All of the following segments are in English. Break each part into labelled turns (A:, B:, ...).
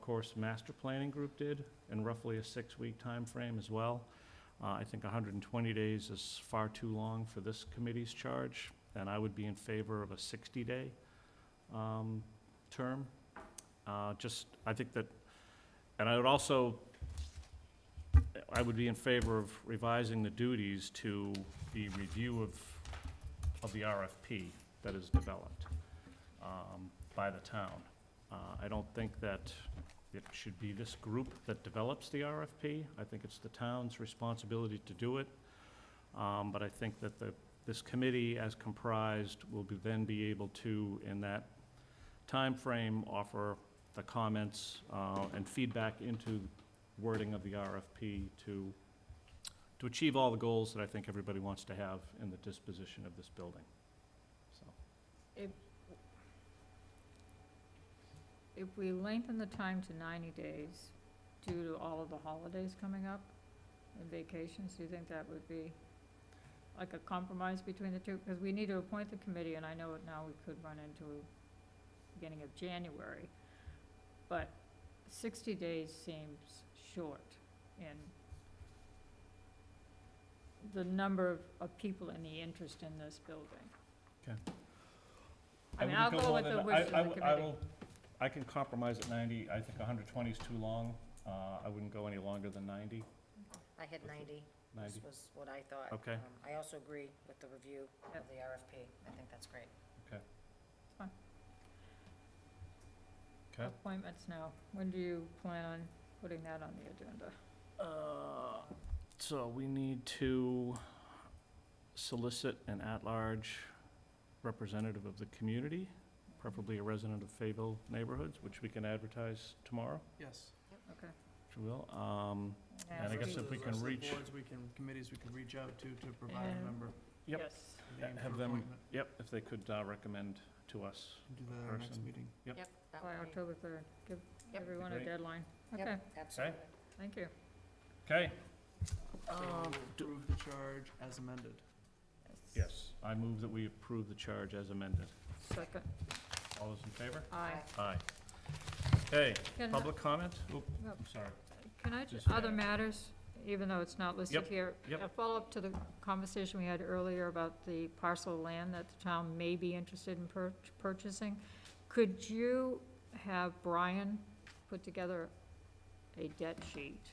A: Course Master Planning Group did in roughly a six-week time frame as well. Uh, I think 120 days is far too long for this committee's charge, and I would be in favor of a 60-day um, term. Uh, Just, I think that, and I would also, I would be in favor of revising the duties to the review of, of the RFP that is developed um, by the town. Uh, I don't think that it should be this group that develops the RFP. I think it's the town's responsibility to do it. Um, But I think that the, this committee, as comprised, will be, then be able to, in that time frame, offer the comments uh, and feedback into wording of the RFP to, to achieve all the goals that I think everybody wants to have in the disposition of this building, so.
B: If we lengthen the time to ninety days due to all of the holidays coming up and vacations, do you think that would be like a compromise between the two? Because we need to appoint the committee, and I know it now we could run into beginning of January. But sixty days seems short in the number of- of people and the interest in this building. I mean, I'll
A: wouldn't
B: go
A: more
B: with
A: than
B: the
A: that.
B: wishes of
A: I- I
B: the
A: will- I
B: committee.
A: will- I can compromise at ninety, I think hundred twenty is too long, uh, I wouldn't go any longer than 90.
C: I had ninety, this
A: 90.
C: was what I thought.
A: Okay.
C: Um, I also agree with the review of
B: Yep.
C: the RFP, I think that's great.
A: Okay.
B: Appointments now, when do you plan on putting that on the agenda?
A: Uh, so we need to solicit an at-large representative of the community, preferably a resident of Fayville neighborhoods, which we can advertise tomorrow,
D: Yes.
A: if you will. Um, And I
B: As
A: guess
B: we-
A: if we
D: Those
A: can
D: are the
A: reach-
D: Boards, we can, committees we can reach out to, to provide
B: And-
D: a member.
A: Yep.
B: Yes,
D: named
A: have
D: for
A: them-
D: appointment.
A: yep, if they could, uh, recommend to us.
D: We can Do that at our next
A: person.
D: meeting.
A: Yep.
C: Yep, that
B: by
C: would be-
B: October third, give
C: Yep.
B: everyone a
A: Great.
B: deadline.
C: Yep,
B: Okay,
C: Absolutely.
B: thank you.
A: Okay?
D: So
C: Um,
A: do-
D: approve the charge as amended.
A: Yes. I move that we approve the charge as amended.
B: Second,
A: All those in favor?
B: aye.
A: Aye. Okay,
B: Can,
A: public comment? Oop,
B: Yep.
A: I'm sorry.
B: can I, ju-
A: Just-
B: other matters, even though it's not listed
A: Yep,
B: here?
A: yep.
B: A follow-up to the conversation we had earlier about the parcel of land that the town may be interested in pur- purchasing. Could you have Brian put together a debt sheet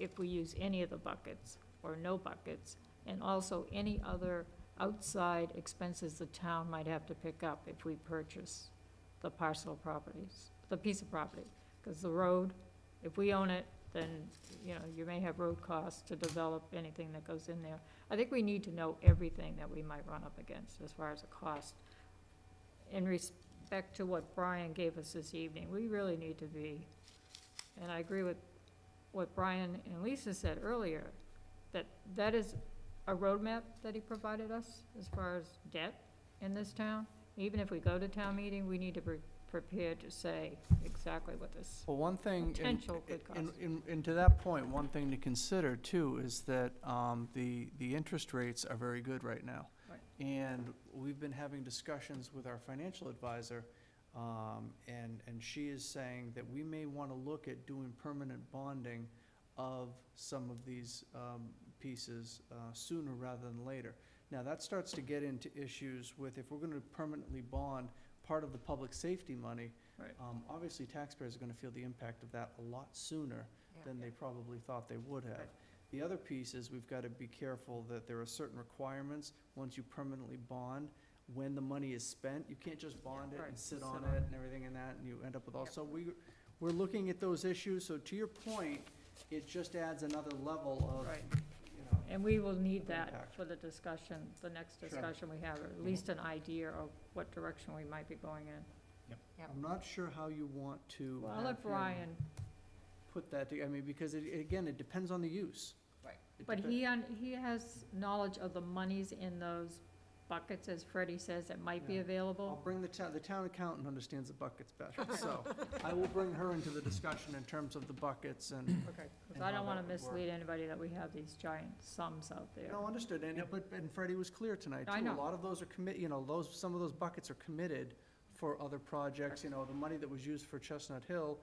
B: if we use any of the buckets or no buckets? And also any other outside expenses the town might have to pick up if we purchase the parcel of properties, the piece of property? Because the road, if we own it, then, you know, you may have road costs to develop anything that goes in there. I think we need to know everything that we might run up against as far as the cost. In respect to what Brian gave us this evening, we really need to be, and I agree with what Brian and Lisa said earlier, that that is a roadmap that he provided us as far as debt in this town. Even if we go to town meeting, we need to be prepared to say exactly what this
D: Well, one thing, and,
B: potential good cost.
D: and- and- and to that point, one thing to consider too is that, um, the, the interest rates are very good right now.
B: Right.
D: And we've been having discussions with our financial advisor, um, and, and she is saying that we may wanna look at doing permanent bonding of some of these, um, pieces, uh, sooner rather than later. Now, that starts to get into issues with, if we're gonna permanently bond part of the public safety money,
B: Right.
D: um, obviously taxpayers are gonna feel the impact of that a lot sooner
C: Yeah.
D: than they probably thought they would have.
B: Right.
D: The other piece is we've got to be careful that there are certain requirements, once you permanently bond, when the money is spent, you can't just bond it
B: Right,
D: and sit
B: sit
D: on
B: on
D: it and everything and that, and you end up with all,
C: Yep.
D: so we, we're looking at those issues, so to your point, it just adds another level
B: Right.
D: of, you know,
B: And we will need
D: Of
B: that
D: impact.
B: for the discussion, the next
D: Sure.
B: discussion we have, or at least an idea of what direction we might be going in.
C: Yep.
D: I'm not sure how you want to.
B: I'll
D: have
B: let
D: him
B: Brian,
D: Put that, to- I mean, because it, again, it depends on the use.
C: Right.
D: It
B: but
D: depe-
B: he, un- he has knowledge of the monies in those buckets, as Freddie says, that might be
D: Yeah.
B: available.
D: I'll bring the town, the town accountant understands the buckets better, so I will bring her into the discussion in terms of the buckets and,
B: Okay. Because
D: Oh, And
B: I
D: how
B: don't want
D: that
B: to
D: would work.
B: mislead anybody that we have these giant sums out there.
D: no, understood, and,
A: Yep.
D: but, and Freddie was clear tonight, too.
B: I know.
D: A lot of those are commit, you know, those, some of those buckets are committed for other projects, you know, the money that was used for Chestnut Hill